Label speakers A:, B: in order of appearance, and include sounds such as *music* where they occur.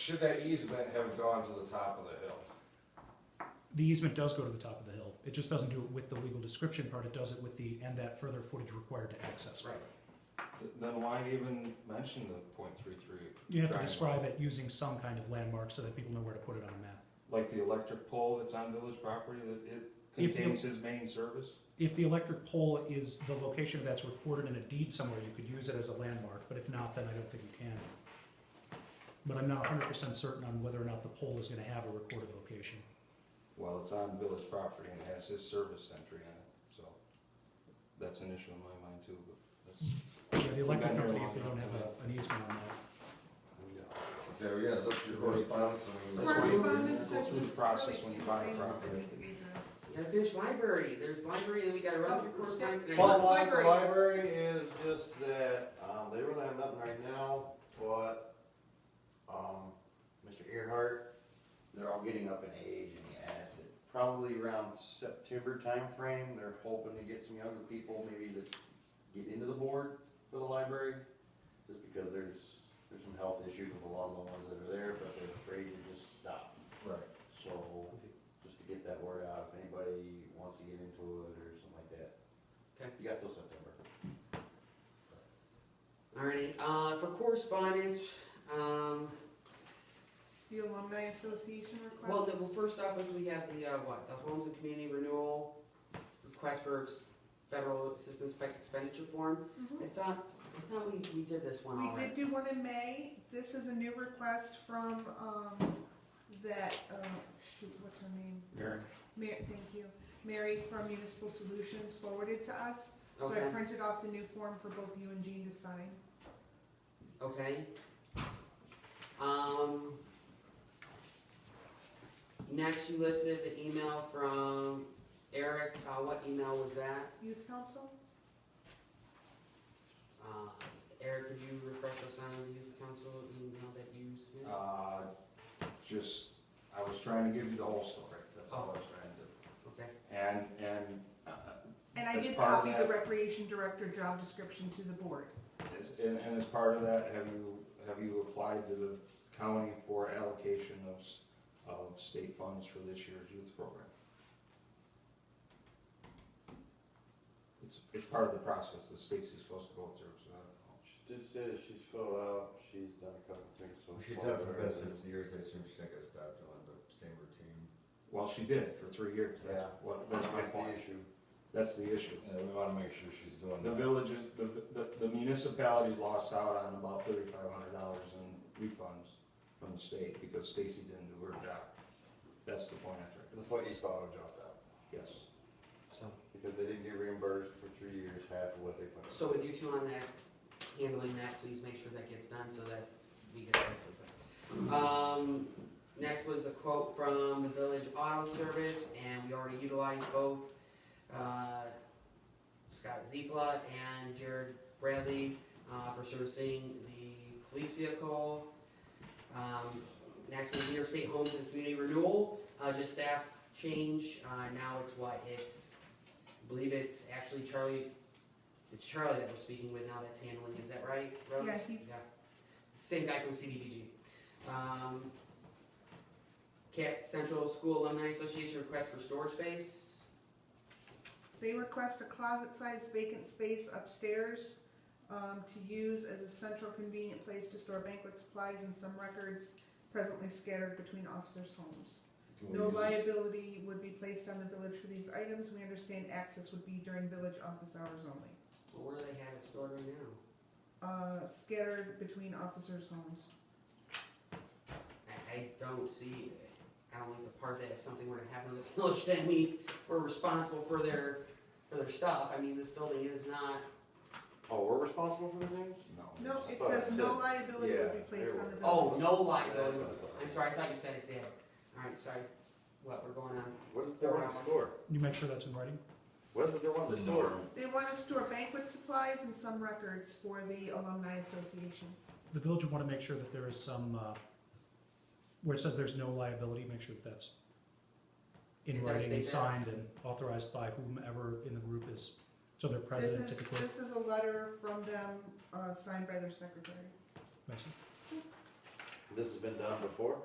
A: Should that easement have gone to the top of the hill?
B: The easement does go to the top of the hill. It just doesn't do it with the legal description part. It does it with the, and that further footage required to access.
A: Right. Then why even mention the point three three?
B: You have to describe it using some kind of landmark so that people know where to put it on a map.
A: Like the electric pole that's on village property, that it
B: If you-
A: contains his main service?
B: If the electric pole is the location that's recorded in a deed somewhere, you could use it as a landmark, but if not, then I don't think you can. But I'm not hundred percent certain on whether or not the pole is gonna have a recorded location.
A: Well, it's on village property and it has his service entry on it, so that's an issue in my mind too, but that's.
B: Yeah, the electric
A: Been there
B: company,
A: long
B: if they
A: enough
B: don't
A: to
B: have a- an easement on that.
C: Okay, we gotta look through correspondence and we.
A: That's why you-
D: Correspondence,
A: go
D: there's
A: through the
D: just
A: process
D: really
A: when you
D: two
A: buy a
D: things that
A: property.
D: need to be done.
E: Gotta finish library, there's library, then we gotta run through correspondence. then I-
D: Well,
C: Bottom line, the
D: library.
C: library is just that, um, they really have nothing right now, but, um, Mr. Earhart, they're all getting up in age and he asked that probably around September timeframe, they're hoping to get some younger people maybe that get into the board for the library. Just because there's, there's some health issues with a lot of the ones that are there, but they're afraid to just stop.
A: Right.
C: So, just to get that word out, if anybody wants to get into it or something like that.
E: Okay.
C: You got till September.
E: Alrighty, uh, for correspondence, um,
D: The alumni association request.
E: well, the, well, first off is we have the, uh, what, the homes and community renewal request for ex- federal assistance spec- expenditure form.
D: Mhm.
E: I thought, I thought we, we did this one
D: We did
E: already.
D: do one in May, this is a new request from, um, that, uh, shoot, what's her name?
A: Mary?
D: Ma- thank you, Mary from Municipal Solutions forwarded to us, so I
E: Okay,
D: printed off the new form for both you and Jean to sign.
E: okay. Um, next you listed the email from Eric, uh, what email was that?
D: Youth Council?
E: Uh, Eric, could you refresh us on the youth council email that you sent?
A: Uh, just, I was trying to give you the whole story, that's all I was trying to do.
E: Okay,
A: And, and uh,
D: And I
A: As
D: did
A: part of
D: copy the
A: that- uh,
D: Recreation Director job description to the board.
A: is- and, and as part of that, have you, have you applied to the county for allocation of, s- of state funds for this year's youth program? It's, it's part of the process that Stacy's supposed to go through, so I don't know.
C: She did say that she's filled out, she's done a couple things so
F: She's
C: far.
F: done for the past fifty years, I assume she's not gonna stop doing the same routine.
A: Well, she did for three years, that's
C: Yeah.
A: what, that's my
C: the
A: point,
C: issue.
A: that's the issue.
C: Yeah, we wanna make sure she's doing
A: The villages, the, the, the municipalities lost out on about thirty-five hundred dollars in refunds from the state because Stacy didn't do her job. That's the point I'm trying
C: That's why East Auto dropped out,
A: to, yes.
E: so,
C: because they didn't get reimbursed for three years half of what they put. in.
E: so with you two on that, handling that, please make sure that gets done so that we get those. Um, next was the quote from the village auto service, and we already utilized both, uh, Scott Ziefla and Jared Bradley, uh, for servicing the police vehicle. Um, next was New York State Homes and Community Renewal, uh, just staff change, uh, now it's what, it's, I believe it's actually Charlie It's Charlie that we're speaking with now that's handling, is that right, Rose?
D: Yeah, he's-
E: Same guy from CDBG. Um, Cat Central School Alumni Association request for storage space.
D: They request a closet-sized vacant space upstairs um, to use as a central convenient place to store banquet supplies and some records presently scattered between officers' homes.
C: Can we
D: No
C: use this-
D: liability would be placed on the village for these items. We understand access would be during village office hours only.
E: Well, where do they have it stored right now?
D: Uh, Scattered between officers' homes.
E: I, I don't see, I don't like the part that if something were to happen to the *laughs* village, then we were responsible for their, for their stuff. I mean, this building is not,
C: Oh, we're responsible for the things?
D: No, it
C: Sorry,
D: says no
C: so-
D: liability would be
C: yeah,
D: placed on the
C: there
E: oh,
D: village.
E: no liability.
C: That's what I thought.
E: I'm sorry, I thought you said it did. All right, sorry, what, we're going on?
C: What is there on the store?
B: You make sure that's in writing?
C: What is there on the store?
D: They want to store banquet supplies and some records for the alumni association.
B: The village would wanna make sure that there is some, uh, where it says there's no liability, make sure that that's in
E: It does
B: writing and
E: state that.
B: signed and authorized by whomever in the group is, so their
D: This
B: president
D: is,
B: typically.
D: this is a letter from them, uh, signed by their secretary.
B: Mason?
C: This has been done before?